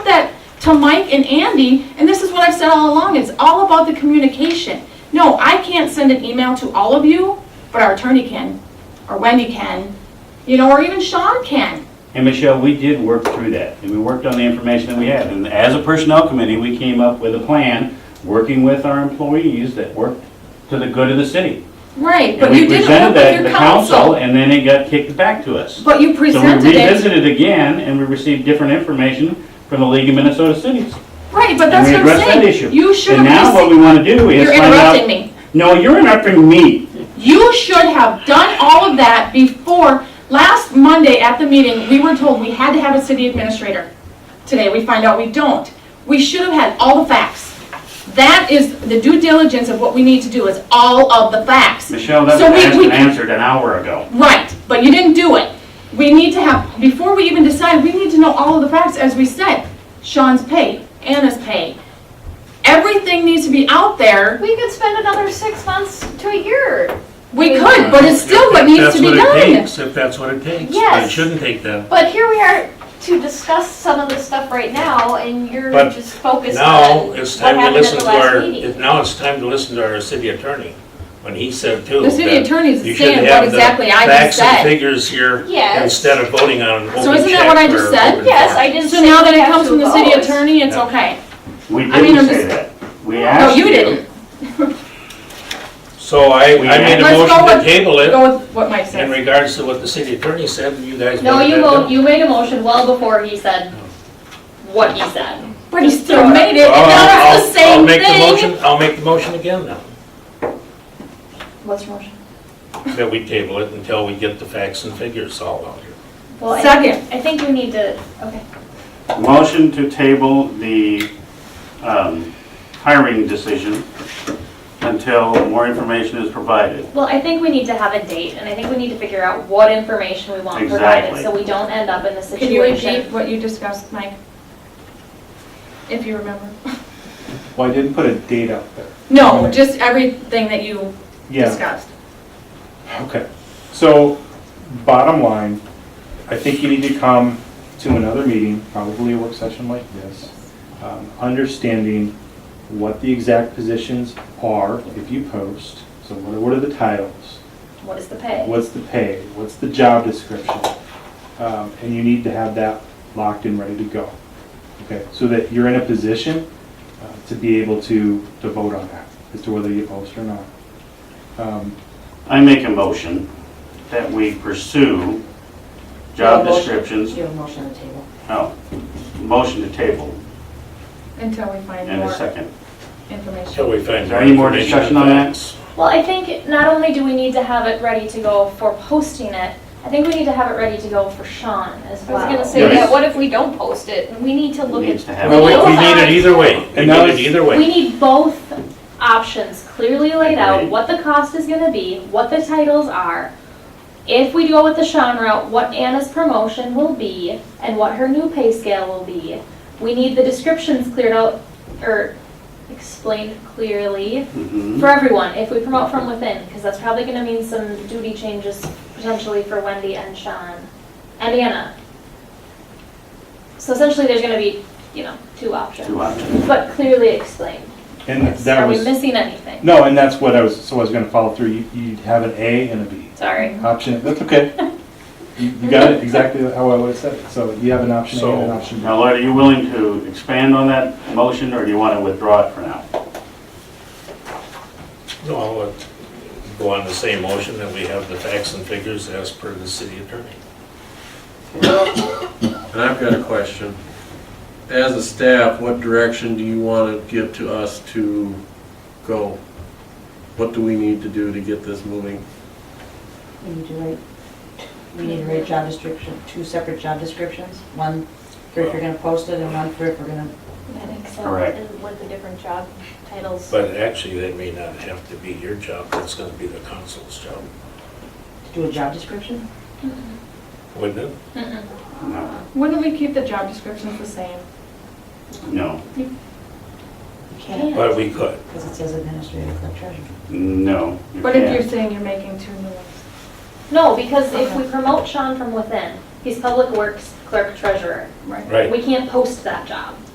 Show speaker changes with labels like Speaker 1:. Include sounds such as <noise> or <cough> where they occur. Speaker 1: to Mike and Andy, and this is what I've said all along, it's all about the communication. No, I can't send an email to all of you, but our attorney can, or Wendy can, you know, or even Sean can.
Speaker 2: And Michelle, we did work through that, and we worked on the information that we had. And as a personnel committee, we came up with a plan, working with our employees that worked to the good of the city.
Speaker 1: Right,
Speaker 2: And
Speaker 1: but
Speaker 2: we
Speaker 1: you didn't
Speaker 2: presented
Speaker 1: work
Speaker 2: that
Speaker 1: with
Speaker 2: to the
Speaker 1: your
Speaker 2: council,
Speaker 1: council.
Speaker 2: and then it got kicked back to us.
Speaker 1: But you
Speaker 2: So we
Speaker 1: presented it.
Speaker 2: revisited again, and we received different information from the League of Minnesota Cities.
Speaker 1: Right, but
Speaker 2: And
Speaker 1: that's
Speaker 2: we
Speaker 1: what I'm
Speaker 2: addressed that
Speaker 1: saying.
Speaker 2: issue.
Speaker 1: You should
Speaker 2: And now
Speaker 1: have
Speaker 2: what
Speaker 1: received,
Speaker 2: we want to do is
Speaker 1: you're
Speaker 2: find out...
Speaker 1: interrupting me.
Speaker 2: No, you're interrupting me.
Speaker 1: You should have done all of that before, last Monday at the meeting, we were told we had to have a city administrator. Today, we find out we don't. We should have had all the facts. That is the due diligence of what we need to do, is all of the facts.
Speaker 2: Michelle,
Speaker 1: So
Speaker 2: that
Speaker 1: we-
Speaker 2: was
Speaker 1: we-
Speaker 2: asked and answered an hour ago.
Speaker 1: Right, but you didn't do it. We need to have, before we even decide, we need to know all of the facts, as we said. Sean's pay, Anna's pay. Everything needs to be out there.
Speaker 3: We could spend another six months to a year.
Speaker 1: We could, but it's still what needs to be done.
Speaker 4: If that's what it takes, if that's what it takes. But It
Speaker 3: Yes.
Speaker 4: shouldn't take that.
Speaker 3: But here we are to discuss some of this stuff right now, and you're
Speaker 4: But
Speaker 3: just focused on
Speaker 4: Now,
Speaker 3: what
Speaker 4: it's time to
Speaker 3: happened at
Speaker 4: listen
Speaker 3: the
Speaker 4: to
Speaker 3: last
Speaker 4: our,
Speaker 3: meeting.
Speaker 4: now it's time to listen to our city attorney, when he said too.
Speaker 1: The city
Speaker 4: that
Speaker 1: attorney's
Speaker 4: you should
Speaker 1: saying
Speaker 4: have
Speaker 1: what
Speaker 4: the
Speaker 1: exactly I just
Speaker 4: Facts and
Speaker 1: said.
Speaker 4: figures here,
Speaker 3: Yes.
Speaker 4: instead of voting on an open check.
Speaker 1: So isn't that what I just
Speaker 4: or
Speaker 1: said?
Speaker 4: open
Speaker 3: Yes,
Speaker 4: door.
Speaker 3: I didn't
Speaker 1: So
Speaker 3: say
Speaker 1: now that
Speaker 3: we
Speaker 1: it
Speaker 3: have
Speaker 1: comes
Speaker 3: to
Speaker 1: from the city
Speaker 3: vote.
Speaker 1: attorney, it's
Speaker 4: Yeah.
Speaker 1: okay.
Speaker 2: We
Speaker 1: I mean,
Speaker 2: didn't
Speaker 1: I'm
Speaker 2: say
Speaker 1: just-
Speaker 2: that. We
Speaker 1: No,
Speaker 2: asked
Speaker 1: you didn't.
Speaker 4: So I, I
Speaker 2: We-
Speaker 4: made a
Speaker 1: Let's go
Speaker 4: motion to
Speaker 1: with-
Speaker 4: table it
Speaker 1: Go with what Mike
Speaker 4: in
Speaker 1: said.
Speaker 4: regards to what the city attorney said, and you guys.
Speaker 5: No,
Speaker 4: voted
Speaker 5: you
Speaker 4: that down.
Speaker 5: won't, you made a motion well before he said what he said.
Speaker 1: But he still made it, and
Speaker 4: Well,
Speaker 1: now
Speaker 4: I'll-
Speaker 1: it's the
Speaker 4: I'll-
Speaker 1: same
Speaker 4: I'll make the
Speaker 1: thing.
Speaker 4: motion, I'll make the motion again now, <laughs>
Speaker 1: What's your motion?
Speaker 4: that we table it until we get the facts and figures all out here.
Speaker 3: Well, I-
Speaker 1: Second.
Speaker 3: I think we need to, okay.
Speaker 2: Motion to table the um, hiring decision until more information is provided.
Speaker 5: Well, I think we need to have a date, and I think we need to figure out what information we want provided,
Speaker 2: Exactly.
Speaker 5: so we don't end up in the
Speaker 1: Can you repeat
Speaker 5: situation.
Speaker 1: what you discussed, Mike? If you remember.
Speaker 6: Well, I didn't put a date out there.
Speaker 1: No, just everything that you
Speaker 6: Yeah,
Speaker 1: discussed.
Speaker 6: okay. So, bottom line, I think you need to come to another meeting, probably a work session like this, um, understanding what the exact positions are if you post. So what are, what are the titles?
Speaker 5: What is the pay?
Speaker 6: What's the pay? What's the job description? Um, And you need to have that locked and ready to go. Okay, so that you're in a position uh, to be able to, to vote on that, as to whether you post or not. Um,
Speaker 2: I make a motion that we pursue job descriptions.
Speaker 7: You have a motion on the table.
Speaker 2: Oh, motion to table
Speaker 1: Until we find
Speaker 2: and a
Speaker 1: more
Speaker 2: second.
Speaker 4: Till
Speaker 1: information.
Speaker 4: we find.
Speaker 2: Is there any more
Speaker 4: information
Speaker 2: discussion on
Speaker 4: and
Speaker 2: that?
Speaker 4: facts.
Speaker 5: Well, I think not only do we need to have it ready to go for posting it, I think we need to have it ready to go for Sean as
Speaker 3: I was
Speaker 5: well.
Speaker 3: gonna say
Speaker 2: Yes.
Speaker 3: that, what if we don't post it? We need to look
Speaker 2: Needs
Speaker 3: at,
Speaker 2: to
Speaker 4: Well,
Speaker 2: happen.
Speaker 4: we, we need it either way, we
Speaker 6: And
Speaker 4: need
Speaker 6: that
Speaker 4: it
Speaker 6: was-
Speaker 4: either way.
Speaker 5: We need both options clearly laid out,
Speaker 2: Agreed.
Speaker 5: what the cost is gonna be, what the titles are. If we go with the Sean route, what Anna's promotion will be and what her new pay scale will be. We need the descriptions cleared out, or explained clearly
Speaker 2: Mhm.
Speaker 5: for everyone, if we promote from within, because that's probably gonna mean some duty changes potentially for Wendy and Sean and Anna. So essentially, there's gonna be, you know, two options.
Speaker 2: Two options.
Speaker 5: But clearly explained.
Speaker 6: And that
Speaker 5: Are we
Speaker 6: was,
Speaker 5: missing anything?
Speaker 6: no, and that's what I was, so I was gonna follow through, You- you'd have an A and a B.
Speaker 5: Sorry.
Speaker 6: Option, that's
Speaker 5: <laughs>
Speaker 6: okay. You you got it exactly how I would've said it, so you have an option A and an
Speaker 4: So-
Speaker 6: option B.
Speaker 2: Now, Lloyd, are you willing to expand on that motion, or do you want to withdraw it for now?
Speaker 4: No, I'll uh, go on the same motion that we have the facts and figures as per the city attorney.
Speaker 8: And I've got a question. As a staff, what direction do you want to give to us to go? What do we need to do to get this moving?
Speaker 7: We need to write, we need to write job description, two separate job descriptions, one for if you're gonna post it and one for if we're gonna,
Speaker 5: I think so.
Speaker 2: Correct.
Speaker 5: And With the different job titles.
Speaker 4: But actually, that may not have to be your job, that's gonna be the council's job,
Speaker 7: do a job description?
Speaker 4: wouldn't it?
Speaker 5: Mm-mm.
Speaker 2: No.
Speaker 1: Wouldn't we keep the job descriptions the same?
Speaker 2: No,
Speaker 7: You can't,
Speaker 4: But we could.
Speaker 7: because it says administrative clerk treasurer.
Speaker 2: no. you
Speaker 1: But if
Speaker 2: can't.
Speaker 1: you're saying you're making two new ones?
Speaker 5: No, because if we promote Sean from within, he's public works clerk treasurer.
Speaker 1: Right.
Speaker 4: Right.
Speaker 5: We can't post that job.